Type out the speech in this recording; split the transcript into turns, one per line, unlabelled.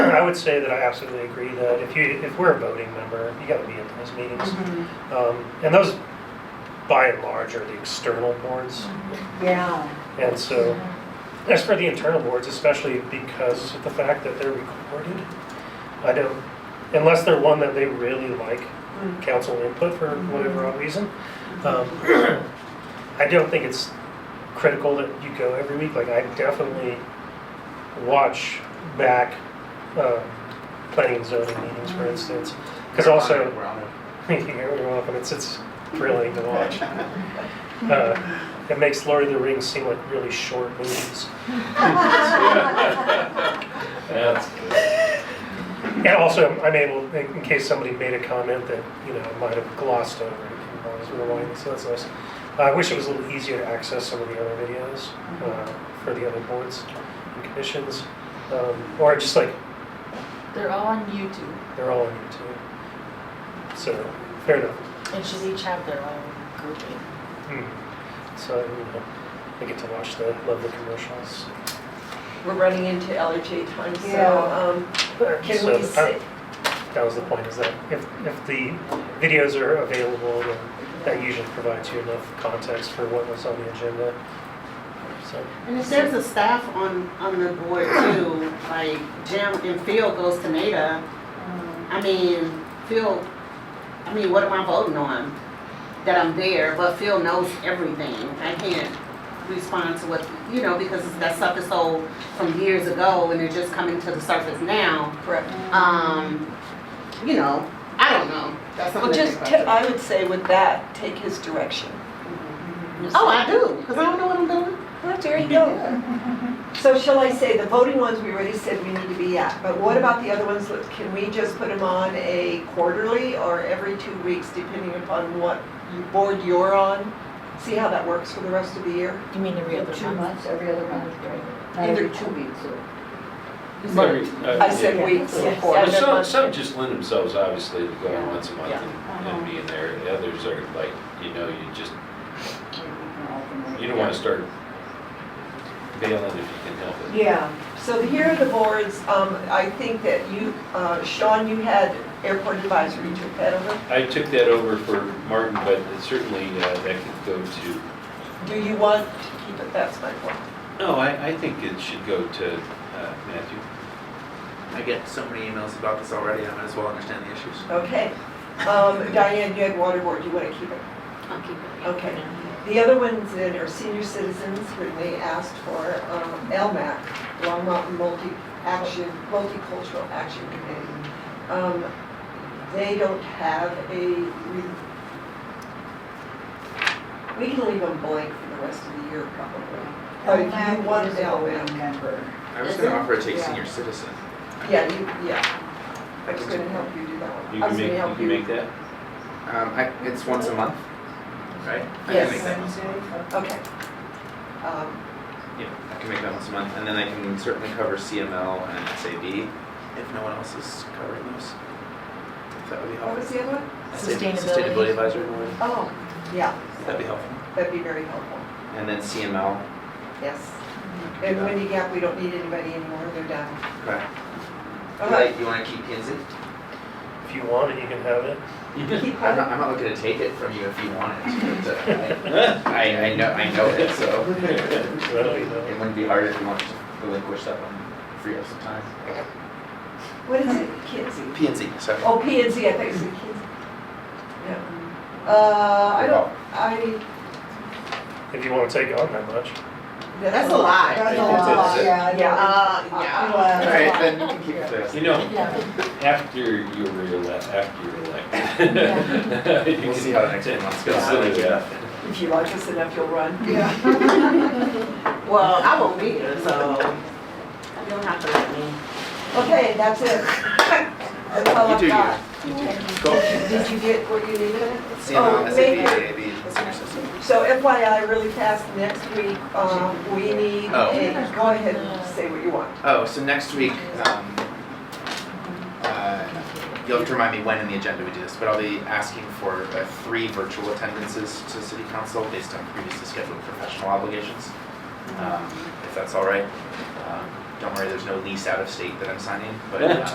would say that I absolutely agree that if you, if we're a voting member, you gotta be at those meetings.
Mm-hmm.
Um, And those, by and large, are the external boards.
Yeah,
And so, as for the internal boards, especially because of the fact that they're recorded, I don't, unless they're one that they really like council input for whatever odd reason, um, I don't think it's critical that you go every week. Like, I definitely watch back um, planning and zoning meetings, for instance, because also.
We're on it.
You hear it often. It's it's thrilling to watch. Uh, it makes Lord of the Rings seem like really short movies,
That's good.
and also I'm able, in in case somebody made a comment that you know I might have glossed over, I can always rewind it, so that's nice. Uh, I wish it was a little easier to access some of the other videos uh, for the other boards and commissions, um, or just like
They're all on YouTube.
they're all on YouTube. So fair enough.
And she's each have their own grouping.
Hmm. So you know, I get to watch the lovely commercials.
We're running into LRJ time,
Yeah.
so, um, can
So,
we
I-
sit?
That was the point, is that if, if the videos are available, then that usually provides you enough context for what was on the agenda. So,
And it saves the staff on, on the board too, like Jim and Phil goes to NADA. I mean, Phil, I mean, what am I voting on? That I'm there, but Phil knows everything. I can't respond to what, you know, because that stuff is so from years ago and it's just coming to the surface now.
Correct.
Um, you know, I don't know. That's
Well,
something to
just,
think
ta-
about.
I would say with that, take his direction.
Oh, I do, because I don't know what I'm doing.
Well, there you go.
so shall I say, the voting ones, we already said we need to be at, but what about the other ones? Can we just put them on a quarterly or every two weeks, depending upon what you- board you're on? See how that works for the rest of the year?
You mean every other month?
every other month, right? Not
Either-
every two weeks or.
I said weeks
Yeah.
or
Well,
quarters.
uh, Some, some just lend themselves, obviously, to going once a month
Yeah. Uh-huh.
and and being there. The others are like, you know, you just, you don't want to start bailing if you can help it.
Yeah, so here are the boards, um, I think that you, uh, Sean, you had airport advisory, you took that over?
I took that over for Martin, but it certainly uh, that could go to,
Do you want to keep it, that's my point.
no, I, I think it should go to uh, Matthew.
I get so many emails about this already, I might as well understand the issues.
Okay. Um, Diane, you had water board, you want to keep it?
I'll keep it.
Okay. The other ones that are senior citizens, when they asked for um, LMAC, Long Mountain Multi-Action, Multicultural Action Committee. Um, They don't have a, re- we can leave them blank for the rest of the year probably. But if you want LMAC,
member.
I was gonna offer to take
Yeah.
senior citizen.
yeah, you, yeah. I was going to help you do that one.
You
I was
can
gonna
make, you
help
can make that?
Um, I, it's once a month, right? I
Yes.
can make that once a month.
Okay. Um,
Yeah, I can make that once a month, and then I can certainly cover CML and SAB if no one else is covering those. If that would be
What was
helpful.
the other one?
SAB,
Sustainability.
Sustainability advisory board,
Oh, yeah,
that'd be helpful.
that'd be very helpful,
And then CML.
yes.
I could do
And
that.
Windy Gap, we don't need anybody anymore, they're done.
Okay.
All right,
Like, you wanna keep P and Z?
if you want it, you can have it.
keep
I'm
going.
not, I'm not looking to take it from you if you want it, but uh, I, I, I know, I know it, so.
That'll be the-
It wouldn't be hard if you wanted to relinquish that one, free up some time.
What is it, Kinsey?
P and Z, sorry.
Oh, P and Z, I thought you said Kinsey. No. Uh, I don't, I,
If you want to take on that much.
That's a lot.
That's a
I think that's
lot,
it.
yeah.
Yeah.
Uh,
Well,
yeah.
that's a
Alright,
lot.
then you can keep it there.
You know,
Yeah.
after you were elected, after you're elected. you
We'll
can
see how the next few months goes.
Consider that.
if you like us enough, you'll run.
Yeah.
Well, I won't be here, so you don't have to let me.
Okay, that's it. That's all
You
I've
do you.
got.
You do you. Go.
Did you get what you needed?
CML,
Oh,
SAB,
maybe.
AAB, senior system.
So FYI, really fast, next week, um, we need
Oh.
a, go ahead and say what you want.
Oh, so next week, um, uh, you'll have to remind me when in the agenda we do this, but I'll be asking for uh, three virtual attendances to city council based on previously scheduled professional obligations. Um, if that's all right. Um, don't worry, there's no lease out of state that I'm signing, but, uh,